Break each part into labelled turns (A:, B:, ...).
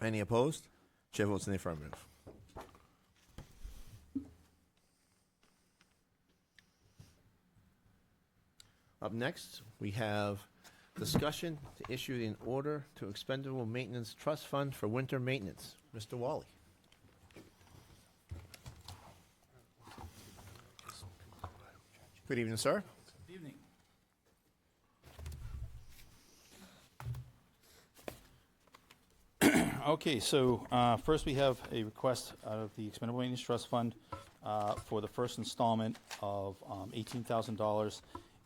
A: Any opposed? Chair votes in the affirmative. Up next, we have discussion to issue an order to expendable maintenance trust fund for winter maintenance. Mr. Wally. Good evening, sir.
B: Good evening. Okay, so uh, first we have a request out of the Expendable Maintenance Trust Fund uh, for the first installment of um, $18,000.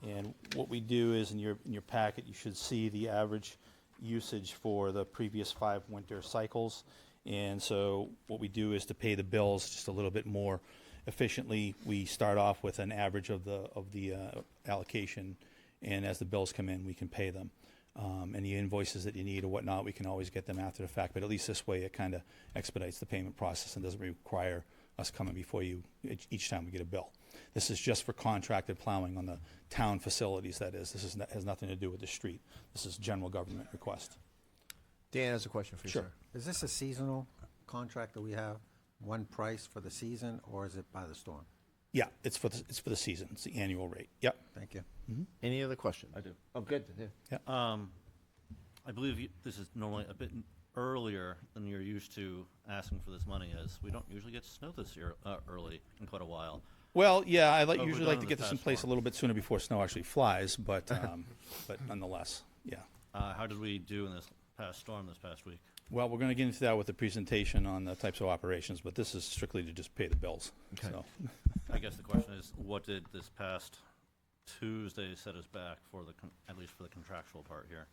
B: And what we do is, in your, in your packet, you should see the average usage for the previous five winter cycles. And so what we do is to pay the bills just a little bit more efficiently. We start off with an average of the, of the uh, allocation, and as the bills come in, we can pay them um, any invoices that you need or whatnot, we can always get them after the fact. But at least this way, it kind of expedites the payment process and doesn't require us coming before you each- each time we get a bill. This is just for contracted plowing on the town facilities, that is. This is, has nothing to do with the street. This is general government request.
A: Dan has a question for you,
B: Sure.
A: sir.
C: Is this a seasonal contract that we have, one price for the season, or is it by the storm?
B: Yeah, it's for, the, it's for the season. It's the annual rate. Yep,
C: Thank you.
A: Any other questions?
D: I do.
A: Oh, good. yeah.
D: Um, I believe you- this is normally a bit earlier than you're used to asking for this money, as we don't usually get snow this year uh, early in quite a while.
B: Well, yeah, I like,
D: But we're
B: usually
D: done
B: like to
D: with
B: get
D: the
B: this in
D: fast
B: place a
D: form.
B: little bit sooner before snow actually flies, but, um, but nonetheless, yeah.
D: Uh, how did we do in this past storm this past week?
B: Well, we're going to get into that with the presentation on the types of operations, but this is strictly to just pay the bills.
A: Okay.
B: So,
D: I guess the question is, what did this past Tuesday set us back for the, con- at least for the contractual part here?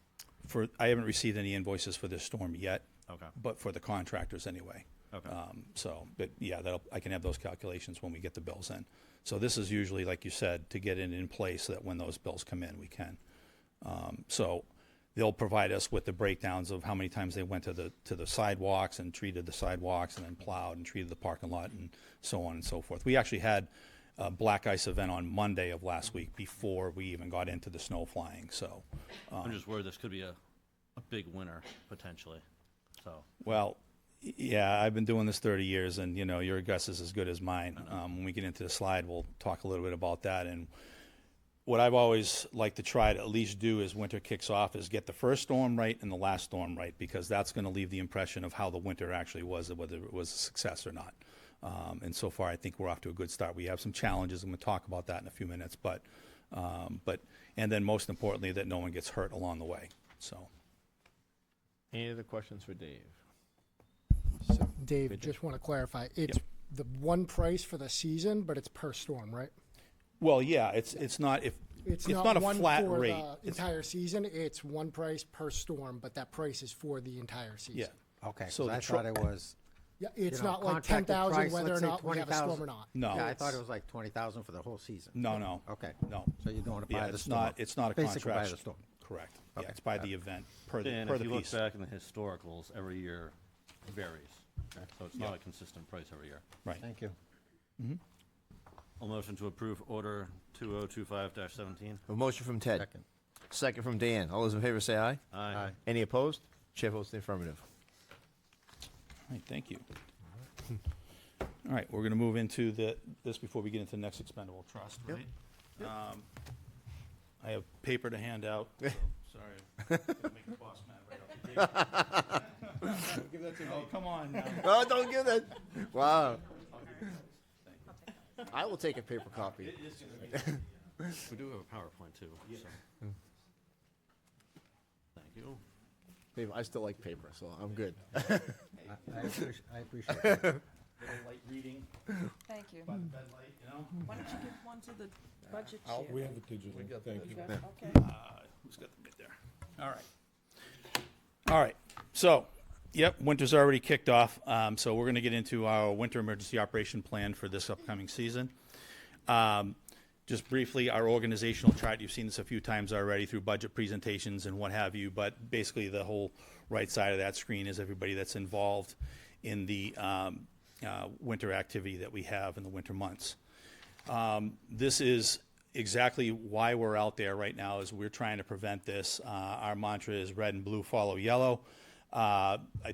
B: for, I haven't received any invoices for this storm yet,
D: Okay,
B: but for the contractors anyway.
D: okay.
B: Um, So, but yeah, that'll, I can have those calculations when we get the bills in. So this is usually, like you said, to get it in place so that when those bills come in, we can. Um, So they'll provide us with the breakdowns of how many times they went to the, to the sidewalks and treated the sidewalks and then plowed and treated the parking lot and so on and so forth. We actually had a black ice event on Monday of last week before we even got into the snow flying, so.
D: I'm just worried this could be a, a big winner potentially, so.
B: Well, y- yeah, I've been doing this 30 years, and you know your guess is as good as mine. Um, when we get into the slide, we'll talk a little bit about that. And what I've always liked to try to at least do is winter kicks off is get the first storm right and the last storm right because that's going to leave the impression of how the winter actually was and whether it was a success or not. Um, and so far, I think we're off to a good start. We have some challenges. I'm going to talk about that in a few minutes, but um, but and then most importantly that no one gets hurt along the way. So.
A: Any other questions for Dave?
E: So Dave, just want to clarify, it's the one price for the season, but it's per storm, right?
B: Well, yeah, it's, it's not, if, it's not a
E: one
B: flat
E: for
B: rate.
E: the Entire season, it's one price per storm, but that price is for the entire season.
B: Yeah.
C: Okay,
B: So
C: so
B: the
C: I
B: tro-
C: thought it was.
E: Yeah, it's
C: you know,
E: not like ten
C: contracted
E: thousand
C: price,
E: whether or
C: let's say
E: not we have a
C: 20,000.
E: storm or not.
B: No.
C: Yeah, I thought
B: it's-
C: it was like twenty thousand for the whole season.
B: No, no.
C: Okay.
B: No.
C: So you're doing it
B: Yeah,
C: by the
B: it's
C: storm.
B: not, it's not a contract.
C: Basically by the storm.
B: Correct. Yeah, it's by the event, per the,
D: And
B: per
D: if
B: the
D: you look
B: piece.
D: back in the historicals, every year varies. So it's not a consistent price every year.
B: Right.
C: Thank you.
D: A motion to approve order 2025-17.
A: A motion from Ted.
C: Second.
A: Second from Dan. All those in favor say aye.
D: Aye.
A: Any opposed? Chair votes in the affirmative.
B: All right, thank you. All right, we're going to move into the, this before we get into the next expendable trust, right? Um, I have paper to hand out, so, sorry. Gonna make the boss mad right off the gate. Oh, come on now.
A: Oh, don't give that. Wow. I will take a paper copy.
D: We do have a PowerPoint too. so. Thank you.
A: Dave, I still like paper, so I'm good.
C: I- I appreciate, I appreciate that.
B: Little light reading
F: Thank you.
B: by the bedlight, you know?
F: Why don't you give one to the budget
G: We
F: chair?
G: have a digital, thank you.
F: Okay.
B: Who's got the bit there? All right. All right. So, yep, winter's already kicked off. Um, so we're going to get into our winter emergency operation plan for this upcoming season. Um, just briefly, our organizational chart, you've seen this a few times already through budget presentations and what have you, but basically the whole right side of that screen is everybody that's involved in the um, uh, winter activity that we have in the winter months this is exactly why we're out there right now is we're trying to prevent this. Uh, our mantra is red and blue follow yellow. Uh, I